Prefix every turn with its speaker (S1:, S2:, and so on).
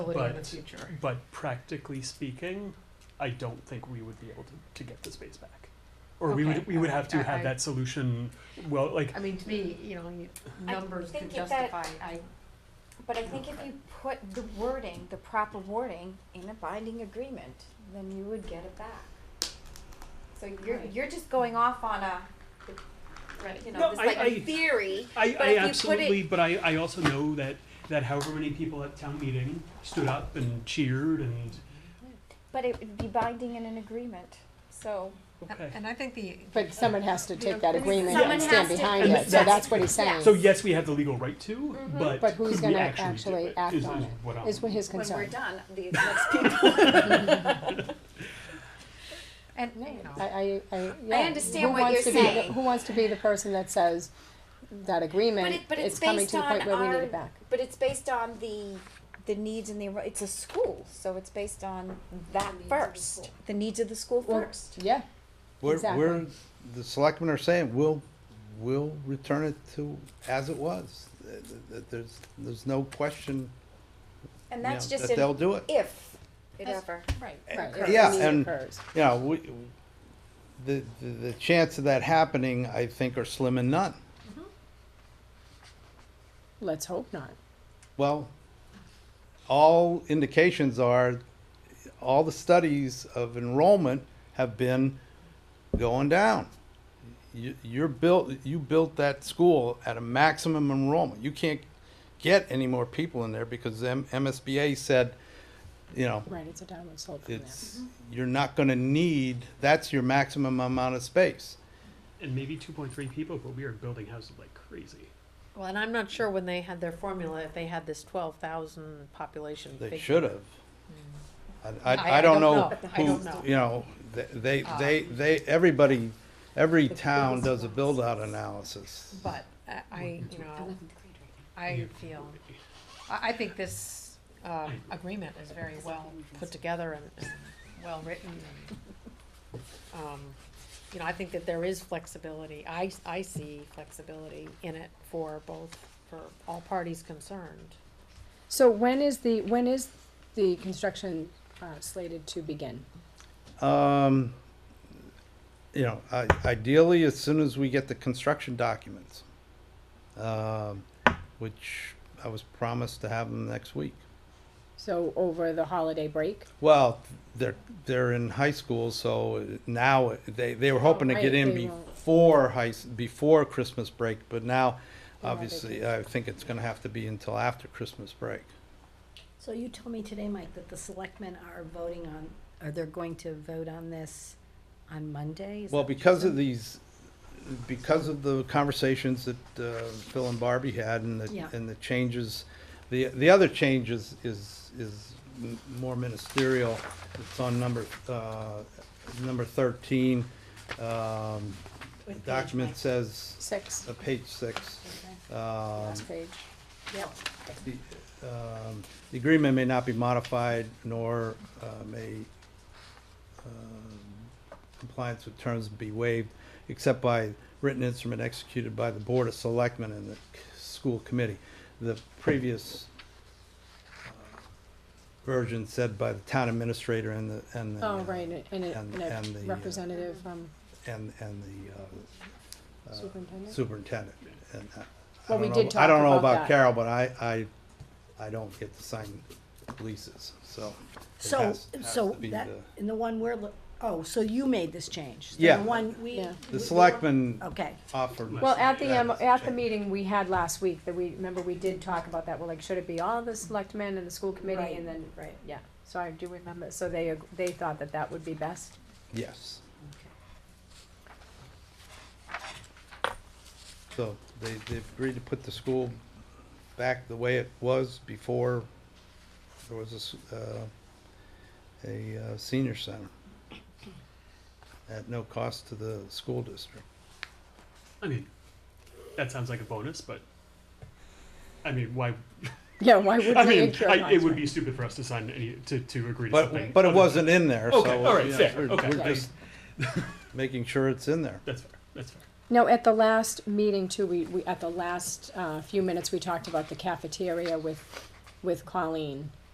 S1: ability in the
S2: But-
S1: future.
S2: But practically speaking, I don't think we would be able to, to get the space back. Or we
S1: Okay,
S2: would, we would have to
S1: alright, I-
S2: have that solution, well, like,
S1: I mean, to me, you know, you-
S3: I
S1: numbers could
S3: think if that-
S1: justify, I,
S3: But I think if you put the wording, the proper wording, in a binding agreement, then you would get it back. So you're,
S1: Right.
S3: you're just going off on a,
S1: right,
S3: you
S2: No,
S3: know, this
S2: I-
S3: like
S2: I-
S3: a theory.
S2: I,
S3: But
S2: I
S3: if you put it-
S2: absolutely, but I, I also know that, that however many people at town meeting stood up and cheered and,
S3: But it would be binding in an agreement, so.
S2: okay.
S4: And I think the,
S5: But someone has to take that agreement
S3: Someone
S5: and stand
S3: has to-
S5: behind
S2: And
S5: it, so
S2: that's-
S5: that's what he's saying,
S2: So yes, we have the legal right to, but
S5: But who's
S2: could we
S5: gonna
S2: actually
S5: actually
S2: do it,
S5: act
S2: is,
S5: on
S2: is
S5: it?
S2: what I'm.
S5: is what his
S3: When we're
S5: concern.
S3: done, the next people.
S4: and,
S5: No,
S4: you know,
S5: I, I, I, yeah.
S3: I understand
S5: Who
S3: what
S5: wants
S3: you're
S5: to be the-
S3: saying.
S5: Who wants to be the person that says that
S3: But
S5: agreement,
S3: it, but it's
S5: it's coming
S3: based
S5: to the point
S3: on
S5: where we need
S3: our,
S5: it back?
S3: but it's based on the, the needs and the, it's a school, so it's based on
S1: needs
S3: that
S1: of the school.
S3: first. The needs of the school
S5: Well,
S3: first.
S5: Yeah,
S6: We're,
S5: Exactly.
S6: we're, the selectmen are saying, we'll, we'll return it to as it was. Th- th- th- There's, there's no question, you
S3: And
S6: know,
S3: that's just
S6: that
S3: an
S6: they'll do it.
S3: if, it
S1: That's-
S3: ever.
S1: right.
S5: right,
S6: Uh,
S5: if
S6: yeah,
S5: the need
S6: and-
S5: occurs.
S6: You know, we, the, the, the chance of that happening, I think, are slim and none.
S5: Let's hope not.
S6: Well, all indications are, all the studies of enrollment have been going down. You, you're built, you built that school at a maximum enrollment. You can't get any more people in there because M- MSBA said, you know,
S5: Right, it's a downward slope from there.
S6: it's, you're not gonna need, that's your maximum amount of space.
S2: And maybe two point three people, but we are building houses like crazy.
S1: Well, and I'm not sure when they had their formula, if they had this twelve thousand population
S6: They
S1: figure. Hmm.
S6: should have. I,
S1: I-
S6: I,
S1: I
S6: I don't
S1: don't
S6: know
S1: know. I
S6: who,
S1: don't know.
S6: you know, th- they,
S5: Ah.
S6: they, they, everybody, every town does a build-out analysis.
S1: But I- I, you know, I feel, I, I think this, um, agreement is very well put together and, and well-written and, um, you know, I think that there is flexibility, I, s- I see flexibility in it for both, for all parties concerned.
S5: So when is the, when is the construction uh, slated to begin?
S6: Um, you know, i- ideally, as soon as we get the construction documents, um, which I was promised to have them next week.
S5: So over the holiday break?
S6: Well, they're, they're in high school, so now, they, they were hoping to get in
S5: Oh, Right, they won't.
S6: before high, s- before Christmas break, but now,
S5: Yeah, they
S6: obviously, I think it's gonna have to be until after Christmas break.
S7: So you told me today, Mike, that the selectmen are voting on, are they going to vote on this on Monday? Is
S6: Well,
S7: that what you
S6: because of
S7: said?
S6: these, because of the conversations that uh, Phil and Barbie had and the,
S7: Yeah.
S6: and the changes, the, the other change is, is, is m- more ministerial. It's on number, uh, number thirteen. Um, the document says,
S5: Six,
S6: uh, page six. Um,
S5: last page.
S6: the, um, the agreement may not be modified nor uh, may um, compliance with terms be waived except by written instrument executed by the Board of Selectmen and the c- school committee. The previous uh, version said by the town administrator and the, and the.
S5: Oh,
S6: uh,
S5: right, and- and a-
S6: and-
S5: and
S6: and the,
S5: a
S6: uh,
S5: representative from
S6: And, and the uh, uh,
S5: superintendent?
S6: superintendent. And I- I
S5: Well, we
S6: don't
S5: did
S6: know- I don't
S5: talk
S6: know
S5: about
S6: about
S5: that.
S6: Carol, but I, I, I don't get to sign leases, so. it
S7: So,
S6: has- has
S7: so
S6: to be
S7: that,
S6: the-
S7: in the one we're, lo- oh, so you made this change? So
S6: Yeah.
S7: The one we.
S5: Yeah.
S6: The
S7: we-
S6: selectmen
S7: Okay,
S6: offered.
S5: Well, at the, um,
S6: that
S5: at the
S6: change.
S5: meeting we had last week, that we, remember we did talk about that, we're like, should it be all the selectmen and the school committee
S7: Right,
S5: and then,
S7: right.
S5: yeah. So I do remember, so they, ag- they thought that that would be best.
S6: Yes. So they, they agreed to put the school back the way it was before there was a, s- uh, a uh, senior center at no cost to the school district.
S2: I mean, that sounds like a bonus, but, I mean, why,
S5: Yeah, why would
S2: I
S5: we
S2: mean,
S5: incur
S2: I, it would be
S5: costs?
S2: stupid for us to sign any, to, to agree to something.
S6: But, but it
S2: other
S6: wasn't in there, so.
S2: Okay, all right,
S6: yeah,
S2: fair,
S6: we're-
S2: okay.
S6: We're just making sure it's in there.
S2: That's fair, that's fair.
S5: No, at the last meeting too, we, we, at the last, uh, few minutes, we talked about the cafeteria with, with Colleen.